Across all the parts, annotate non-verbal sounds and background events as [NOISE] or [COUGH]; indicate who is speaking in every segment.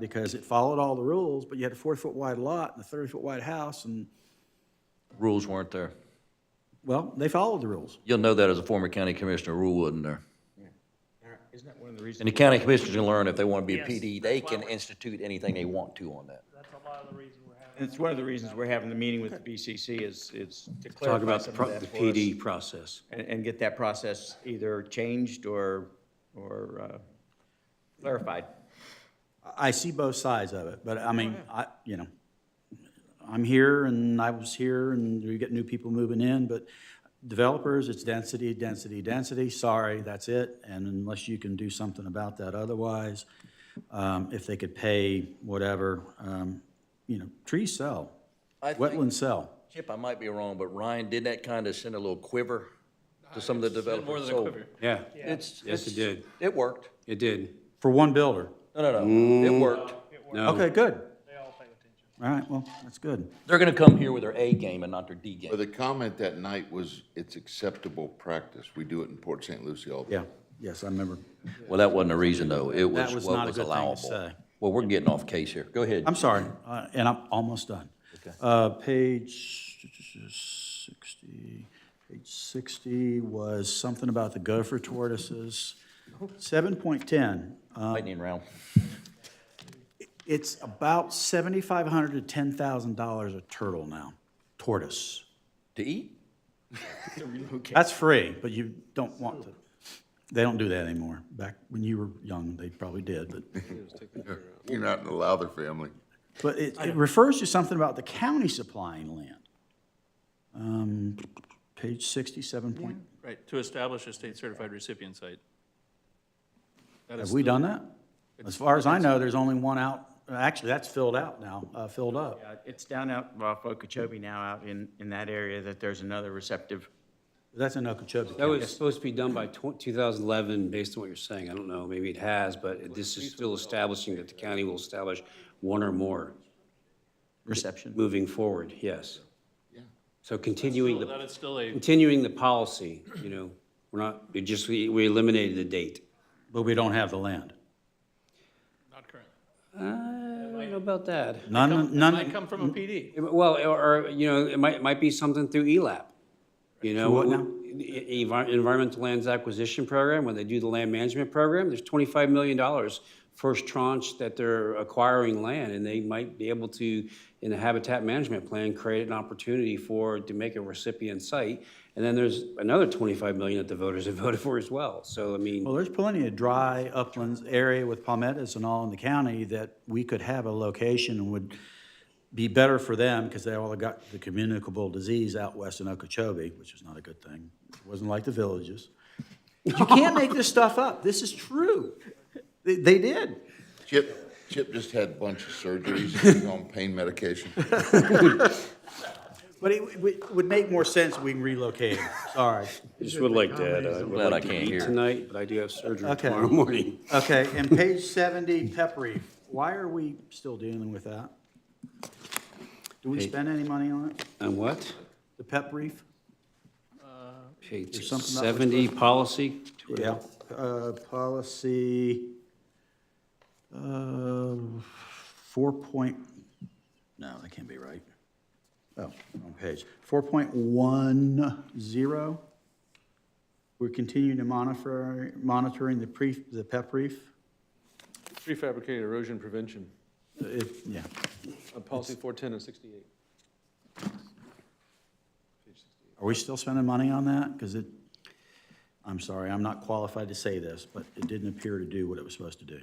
Speaker 1: because it followed all the rules, but you had a four-foot wide lot and a thirty-foot wide house, and,
Speaker 2: Rules weren't there.
Speaker 1: well, they followed the rules.
Speaker 2: You'll know that as a former county commissioner, rule wasn't there.
Speaker 3: Isn't that one of the reasons?
Speaker 2: And the county commissioners can learn if they want to be a
Speaker 4: Yes,
Speaker 2: PD,
Speaker 4: that's
Speaker 2: they
Speaker 4: why
Speaker 2: can
Speaker 4: we're-
Speaker 2: institute anything they want to on that.
Speaker 4: That's a lot of the reason we're having.
Speaker 3: It's one of the reasons we're having the meeting with the BCC is, is to
Speaker 5: Talk
Speaker 3: clarify
Speaker 5: about the
Speaker 3: some of
Speaker 5: pro-
Speaker 3: that
Speaker 5: the
Speaker 3: for us.
Speaker 5: PD process.
Speaker 3: And, and get that process either changed or, or uh, clarified.
Speaker 1: I- I see both sides of it, but I mean, I, you know, I'm here and I was here and you get new people moving in, but developers, it's density, density, density, sorry, that's it. And unless you can do something about that otherwise, um, if they could pay whatever, um, you know, trees sell,
Speaker 2: I think-
Speaker 1: wetlands sell.
Speaker 2: Chip, I might be wrong, but Ryan, did that kind of send a little quiver to some of the developers?
Speaker 6: More than a
Speaker 2: So,
Speaker 6: quiver.
Speaker 5: Yeah,
Speaker 2: It's,
Speaker 5: Yes,
Speaker 2: it's-
Speaker 5: it did.
Speaker 2: It worked.
Speaker 5: it did.
Speaker 1: For one builder.
Speaker 2: No, no, no, it worked.
Speaker 5: No.
Speaker 1: Okay, good.
Speaker 4: They all pay attention.
Speaker 1: All right, well, that's good.
Speaker 2: They're going to come here with their A game and not their D game.
Speaker 7: But the comment that night was, it's acceptable practice. We do it in Port St. Lucie all the time.
Speaker 1: Yeah, yes, I remember.
Speaker 2: Well, that wasn't the reason, though. It was
Speaker 1: That was
Speaker 2: what
Speaker 1: not a
Speaker 2: was
Speaker 1: good thing to
Speaker 2: allowable.
Speaker 1: say.
Speaker 2: Well, we're getting off case here. Go ahead.
Speaker 1: I'm sorry, uh, and I'm almost done. Uh, Page 60, page 60 was something about the gopher tortoises. 7.10, uh,
Speaker 2: Lightning round.
Speaker 1: it's about $7,500 to $10,000 a turtle now, tortoise.
Speaker 2: To eat?
Speaker 1: That's free, but you don't want to, they don't do that anymore. Back when you were young, they probably did, but,
Speaker 7: You're not in the Lowther family.
Speaker 1: but it it refers to something about the county supplying land. Um, Page 67 point,
Speaker 6: Right, to establish a state-certified recipient site. That
Speaker 1: Have
Speaker 6: is
Speaker 1: we
Speaker 6: still-
Speaker 1: done that? As far as I know, there's only one out, actually, that's filled out now, uh, filled up.
Speaker 3: Uh, It's down out, well, Okeechobee now out in, in that area that there's another receptive.
Speaker 1: That's in Okeechobee
Speaker 5: That
Speaker 1: County.
Speaker 5: was supposed to be done by tw- 2011, based on what you're saying. I don't know, maybe it has, but this is still establishing that the county will establish one or more
Speaker 3: Reception.
Speaker 5: moving forward, yes. So continuing
Speaker 6: That
Speaker 5: the,
Speaker 6: is still a,
Speaker 5: continuing the policy, you know, we're not, it just, we we eliminated the date.
Speaker 1: But we don't have the land.
Speaker 6: not current.
Speaker 5: Uh, I don't know about that.
Speaker 1: None,
Speaker 6: Might
Speaker 1: none,
Speaker 6: come from a PD.
Speaker 5: It- Well, or, or, you know, it might, might be something through ELAP. You know,
Speaker 1: what now?
Speaker 5: e- envi- Environmental Lands Acquisition Program, when they do the land management program, there's twenty-five million dollars first tranche that they're acquiring land, and they might be able to, in the habitat management plan, create an opportunity for, to make a recipient site. And then there's another twenty-five million that the voters have [LAUGHS] voted for as well. So, I mean,
Speaker 1: well, there's plenty of dry uplands area with palmettos and all in the county that we could have a location and would be better for them because they all got the communicable disease out west in Okeechobee, which is not a good thing. It wasn't like the villages. But You can't make this stuff up. This is true. They, they did.
Speaker 7: Chip, Chip just had a bunch of surgeries. He's on pain medication.
Speaker 1: But it w- w- would make more sense if we relocate them. Sorry.
Speaker 5: I just would like to, uh, I would
Speaker 2: Glad I
Speaker 5: like to
Speaker 2: can't
Speaker 5: eat
Speaker 2: hear.
Speaker 5: tonight, but I do have surgery
Speaker 1: Okay.
Speaker 5: tomorrow morning. [LAUGHS]
Speaker 1: Okay, and page seventy, pep reef. Why are we still dealing with that? Do we spend any money on it?
Speaker 5: And what?
Speaker 1: The pep reef?
Speaker 5: Page
Speaker 1: something that was
Speaker 5: 70, policy?
Speaker 1: Yeah, uh, policy, uh, four point, no, that can't be right. Oh, wrong page. Four point one zero. We're continuing to monitor, monitoring the pre, the pep reef.
Speaker 8: Prefabricated erosion prevention,
Speaker 1: It- yeah.
Speaker 8: uh, policy 410 and 68.
Speaker 1: Are we still spending money on that? Because it, I'm sorry, I'm not qualified to say this, but it didn't appear to do what it was supposed to do.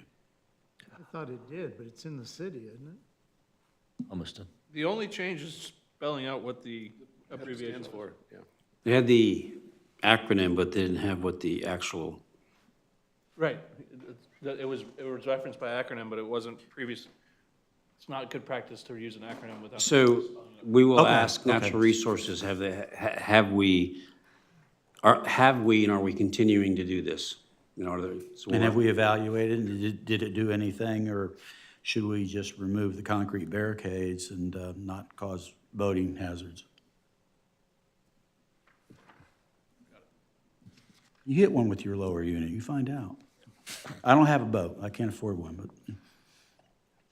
Speaker 9: I thought it did, but it's in the city, isn't it?
Speaker 2: Almost done.
Speaker 6: The only change is spelling out what the abbreviation is for.
Speaker 5: They had the acronym, but they didn't have what the actual,
Speaker 6: Right, It- it it was, it was referenced by acronym, but it wasn't previous, it's not good practice to use an acronym without.
Speaker 5: so we will
Speaker 1: Okay,
Speaker 5: ask natural resources, have they, ha- have we, are, have we and are we continuing to do this? You know, are there, so
Speaker 1: And have
Speaker 5: we'll-
Speaker 1: we evaluated, and did, did it do anything, or should we just remove the concrete barricades and uh, not cause boating hazards? You hit one with your lower unit, you find out. I don't have a boat, I can't afford one, but